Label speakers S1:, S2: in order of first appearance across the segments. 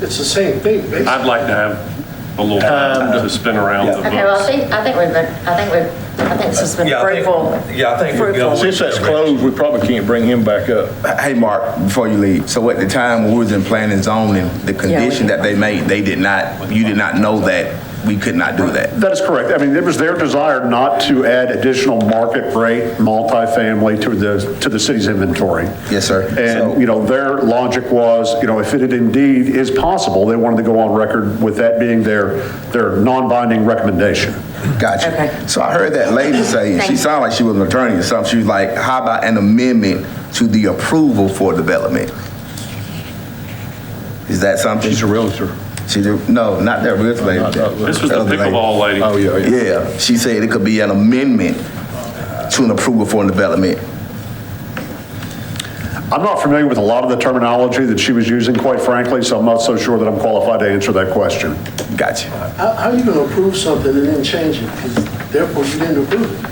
S1: It's the same thing, basically.
S2: I'd like to have a little time to spin around the
S3: Okay, well, I
S2: books.
S3: think, I think we've been, I think we've, I think this has been
S4: Yeah, I think-
S3: fruitful.
S4: yeah, I think we've
S3: fruitful.
S4: gone with-
S5: Since that's closed, we probably can't bring him back up.
S6: Hey, Mark, before you leave, so at the time when we was in planning zoning, the condition that they made, they did not, you did not know that we could not do that.
S7: That is correct. I mean, it was their desire not to add additional market rate multifamily to the, to the city's inventory.
S6: Yes, sir. So-
S7: And, you know, their logic was, you know, if it indeed is possible, they wanted to go on record with that being their, their non-binding recommendation.
S3: Okay.
S6: Gotcha. So I heard that lady say,
S3: Thank
S6: she
S3: you.
S6: sounded like she was an attorney or something. She was like, how about an amendment to the approval for development? Is that something?
S5: She's a realtor.
S6: She, do- no, not that real lady.
S5: not that one.
S2: This was the
S6: Other lady.
S2: pickleball lady.
S5: Oh, yeah, yeah.
S6: Yeah, she said it could be an amendment to an approval for development.
S7: I'm not familiar with a lot of the terminology that she was using, quite frankly, so I'm not so sure that I'm qualified to answer that question.
S6: Gotcha.
S1: How, how are you gonna approve something and then change it? 'Cause Therefore, you didn't approve it.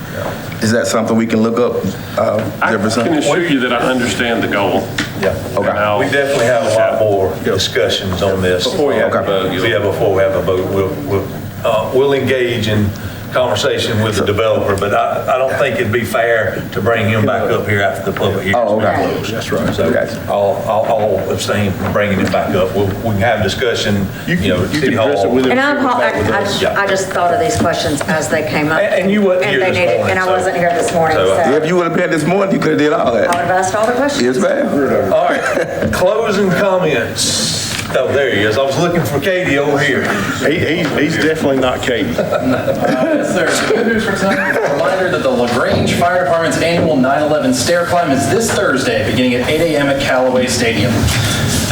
S6: Is that something we can look up, uh,
S2: I
S6: Jefferson?
S2: can assure you that I understand the goal.
S4: Yeah.
S6: Okay.
S2: And I'll-
S4: We definitely have a lot more discussions on this. Before
S6: we have a
S2: vote, you'll-
S4: Yeah, before we have a vote, we'll, we'll, uh, we'll engage in conversation with the developer, but I, I don't think it'd be fair to bring him back up here after the public hearing.
S6: Oh, okay.
S4: That's right. So
S6: Gotcha.
S4: I'll, I'll I'll abstain from bringing it back up. We'll, we can have discussion, you know, at
S5: you
S4: City
S5: can address it
S4: Hall.
S5: with him.
S3: And I'm, I, I just-
S4: Yeah.
S3: I just thought of these questions as they came up.
S4: And- and you wasn't
S3: And
S4: here
S3: they
S4: this
S3: needed-
S4: morning,
S3: And I
S4: so-
S3: wasn't here this morning, so
S4: So, uh,
S3: I
S6: If
S3: would
S6: you would have been this morning, you could have did all that.
S3: have asked all the questions.
S6: Yes, ma'am.
S4: All right, closing comments. Oh, there he is. I was looking for Katie over here.
S5: He, he's, he's definitely not Katie.
S8: Yes, sir. Good news for tonight. A Reminder that the LaGrange Fire Department's annual 9/11 stair climb is this Thursday, beginning at 8 a.m. at Callaway Stadium.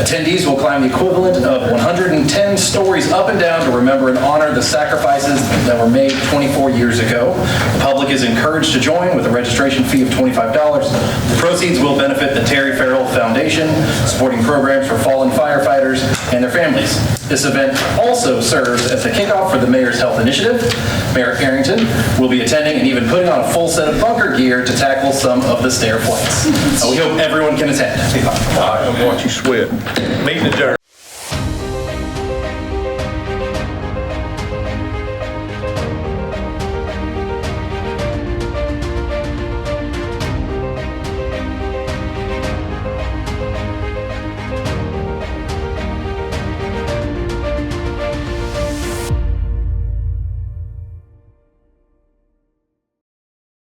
S8: Attendees will climb the equivalent of 110 stories up and down to remember and honor the sacrifices that were made 24 years ago. The public is encouraged to join with a registration fee of $25. The proceeds will benefit the Terry Farrell Foundation, supporting programs for fallen firefighters and their families. This event also serves as the kickoff for the Mayor's Health Initiative. Mayor Carrington will be attending and even putting on a full set of bunker gear to tackle some of the stair flights. Uh, We hope everyone can attend.
S5: Watch you sweat.
S4: Meeting adjourned.